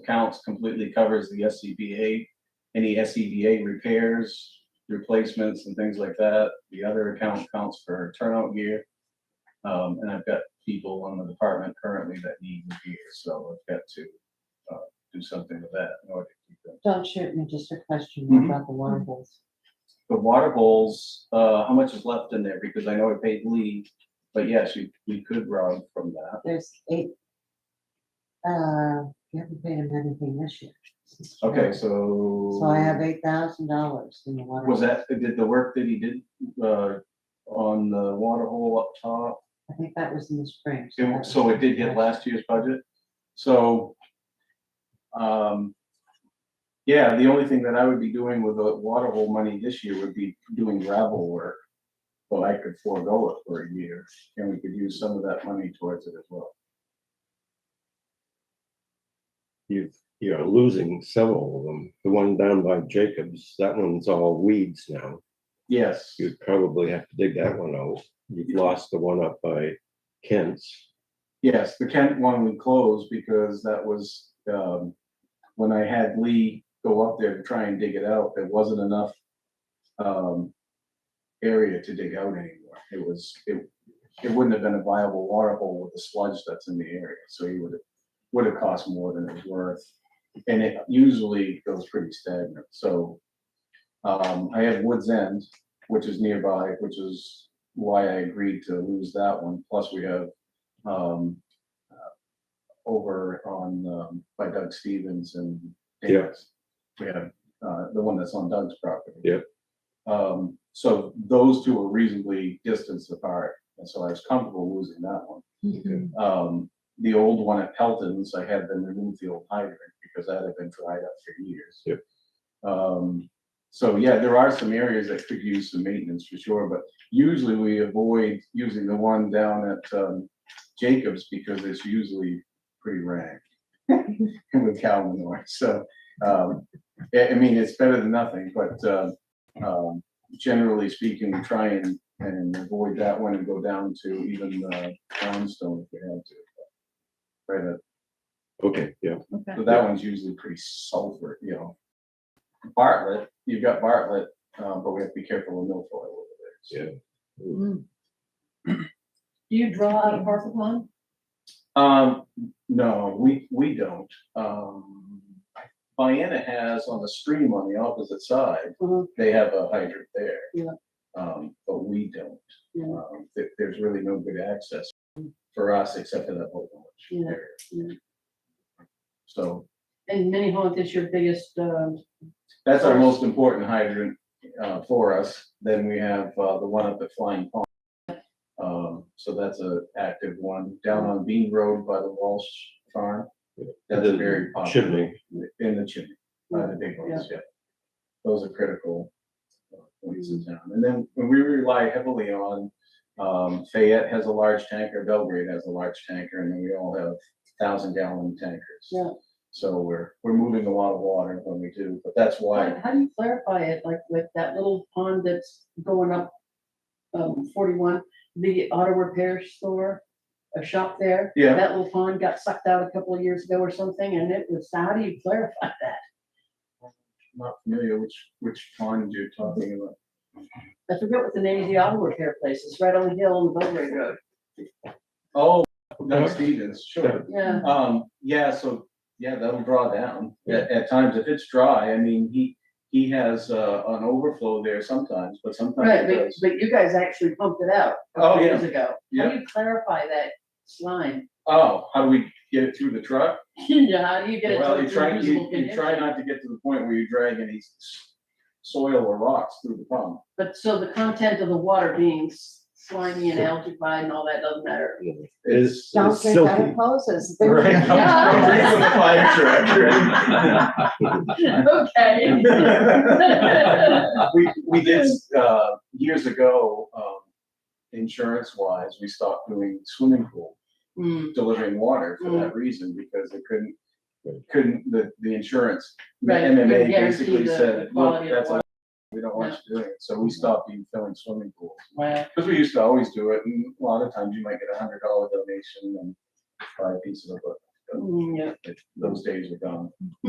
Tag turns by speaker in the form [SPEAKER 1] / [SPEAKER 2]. [SPEAKER 1] accounts completely covers the SCBA, any SCBA repairs, replacements and things like that. The other account counts for turnout gear. Um, and I've got people in the department currently that need gear, so I've got to, uh, do something with that in order to keep them.
[SPEAKER 2] Don't shoot me, just a question
[SPEAKER 1] Mhm.
[SPEAKER 2] about the water holes.
[SPEAKER 1] The water holes, uh, how much is left in there? Because I know I paid Lee, but yes, you, we could rob from that.
[SPEAKER 2] There's eight. Uh, you haven't paid him anything this year.
[SPEAKER 1] Okay, so.
[SPEAKER 2] So I have eight thousand dollars in the water.
[SPEAKER 1] Was
[SPEAKER 2] hole.
[SPEAKER 1] that, did the work that he did, uh, on the water hole up top,
[SPEAKER 2] I think that was in the spring.
[SPEAKER 1] it wa- so it did hit last year's budget? So, um, yeah, the only thing that I would be doing with the water hole money this year would be doing gravel work. But I could forego it for a year, and we could use some of that money towards it as well.
[SPEAKER 3] You, you're losing several of them. The one down by Jacobs, that one's all weeds now.
[SPEAKER 1] Yes,
[SPEAKER 3] You'd probably have to dig that one out. You've lost the one up by Kent's.
[SPEAKER 1] yes, the Kent one we closed because that was, um, when I had Lee go up there to try and dig it out, there wasn't enough um, area to dig out anymore. It was, it, it wouldn't have been a viable water hole with the sludge that's in the area, so it would have, would have cost more than it was worth. And it usually goes pretty stagnant, so, um, I have Woods End, which is nearby, which is why I agreed to lose that one, plus we have, um, uh, over on, um, by Doug Stevens and
[SPEAKER 3] Yeah.
[SPEAKER 1] Davis. We have, uh, the one that's on Doug's property.
[SPEAKER 3] Yep.
[SPEAKER 1] Um, so those two are reasonably distanced apart, and so I was comfortable losing that one.
[SPEAKER 4] Mm-hmm.
[SPEAKER 2] Mhm.
[SPEAKER 1] Um, the old one at Pelton's, I had them remove the old hydrant because that had been dried up for years.
[SPEAKER 3] Yep.
[SPEAKER 1] Um, so yeah, there are some areas that could use some maintenance for sure, but usually we avoid using the one down at, um, Jacobs because it's usually pretty rank with cow manure, so, um, I, I mean, it's better than nothing, but, uh, um, generally speaking, we try and, and avoid that one and go down to even, uh, brownstone if we had to. but Right, uh,
[SPEAKER 3] Okay, yeah,
[SPEAKER 1] so that one's usually pretty sulfur, you know. Bartlett, you've got Bartlett, uh, but we have to be careful with milfoil over there. so.
[SPEAKER 4] Do you draw out of parcel one?
[SPEAKER 1] Um, no, we, we don't. Um, Vienna has on the stream on the opposite side,
[SPEAKER 2] Mhm.
[SPEAKER 1] they have a hydrant there.
[SPEAKER 2] Yeah.
[SPEAKER 1] Um, but we don't.
[SPEAKER 2] Yeah. Mm.
[SPEAKER 1] Um, there- there's really no good access for us except for that whole bunch
[SPEAKER 2] Yeah,
[SPEAKER 1] area.
[SPEAKER 2] yeah.
[SPEAKER 1] So
[SPEAKER 4] And Minnie Haunt is your biggest, uh,
[SPEAKER 1] that's our most important hydrant, uh, for us. Then we have, uh, the one up at Flying Pond. Um, so that's a active one down on Bean Road by the Walsh Farm. That's
[SPEAKER 3] The
[SPEAKER 1] very popular
[SPEAKER 3] chimney.
[SPEAKER 1] in the chimney, by the big ones, yeah. Those are critical uh, points in town. And then we rely heavily on, um, Fayette has a large tanker, Belgrade has a large tanker, and then we all have thousand gallon tankers.
[SPEAKER 2] Yeah.
[SPEAKER 1] So we're, we're moving a lot of water when we do, but that's why,
[SPEAKER 4] how, how do you clarify it, like with that little pond that's going up, um, forty-one, the auto repair store, a shop there?
[SPEAKER 1] Yeah.
[SPEAKER 4] That little pond got sucked out a couple of years ago or something, and it was, how do you clarify that?
[SPEAKER 1] I'm not familiar which, which pond you're talking about.
[SPEAKER 4] I forget what the name of the auto repair place is, right on the hill on Belgrade Road,
[SPEAKER 1] Oh, Doug Stevens, sure.
[SPEAKER 4] yeah.
[SPEAKER 1] Um, yeah, so, yeah, that'll draw down. At, at times, if it's dry, I mean, he, he has, uh, an overflow there sometimes, but sometimes
[SPEAKER 4] Right,
[SPEAKER 1] it
[SPEAKER 4] but,
[SPEAKER 1] does.
[SPEAKER 4] but you guys actually pumped it out a
[SPEAKER 1] Oh,
[SPEAKER 4] couple
[SPEAKER 1] yeah.
[SPEAKER 4] years ago. How
[SPEAKER 1] Yeah.
[SPEAKER 4] do you clarify that slime?
[SPEAKER 1] Oh, how do we get it through the truck?
[SPEAKER 4] Yeah, how do you get it
[SPEAKER 1] Well,
[SPEAKER 4] to
[SPEAKER 1] you
[SPEAKER 4] a
[SPEAKER 1] try, you,
[SPEAKER 4] usable
[SPEAKER 1] you try
[SPEAKER 4] condition?
[SPEAKER 1] not to get to the point where you drag any s- soil or rocks through the pump.
[SPEAKER 4] But so the content of the water being s- slimy and algae and all that doesn't matter.
[SPEAKER 3] It's
[SPEAKER 2] Don't
[SPEAKER 3] it's
[SPEAKER 2] get that
[SPEAKER 3] silky.
[SPEAKER 2] imposes.
[SPEAKER 1] Right?
[SPEAKER 4] Yeah.
[SPEAKER 1] Don't fire
[SPEAKER 4] Okay.
[SPEAKER 1] truck. We, we did, uh, years ago, um, insurance wise, we stopped doing swimming pool
[SPEAKER 4] Hmm,
[SPEAKER 1] delivering water for
[SPEAKER 4] Mm.
[SPEAKER 1] that reason, because they couldn't,
[SPEAKER 3] Right.
[SPEAKER 1] couldn't, the, the insurance, the
[SPEAKER 4] Right, couldn't
[SPEAKER 1] MMA
[SPEAKER 4] guarantee
[SPEAKER 1] basically
[SPEAKER 4] the
[SPEAKER 1] said, look,
[SPEAKER 4] quality of
[SPEAKER 1] that's,
[SPEAKER 4] water." Mm-hmm.
[SPEAKER 1] we don't want you doing it, so we stopped even filling swimming pools.
[SPEAKER 4] well,
[SPEAKER 1] Because we used to always do it, and a lot of times you might get a hundred dollar donation and buy a piece of it. but- but
[SPEAKER 4] Mm, Yeah,
[SPEAKER 1] those days are gone.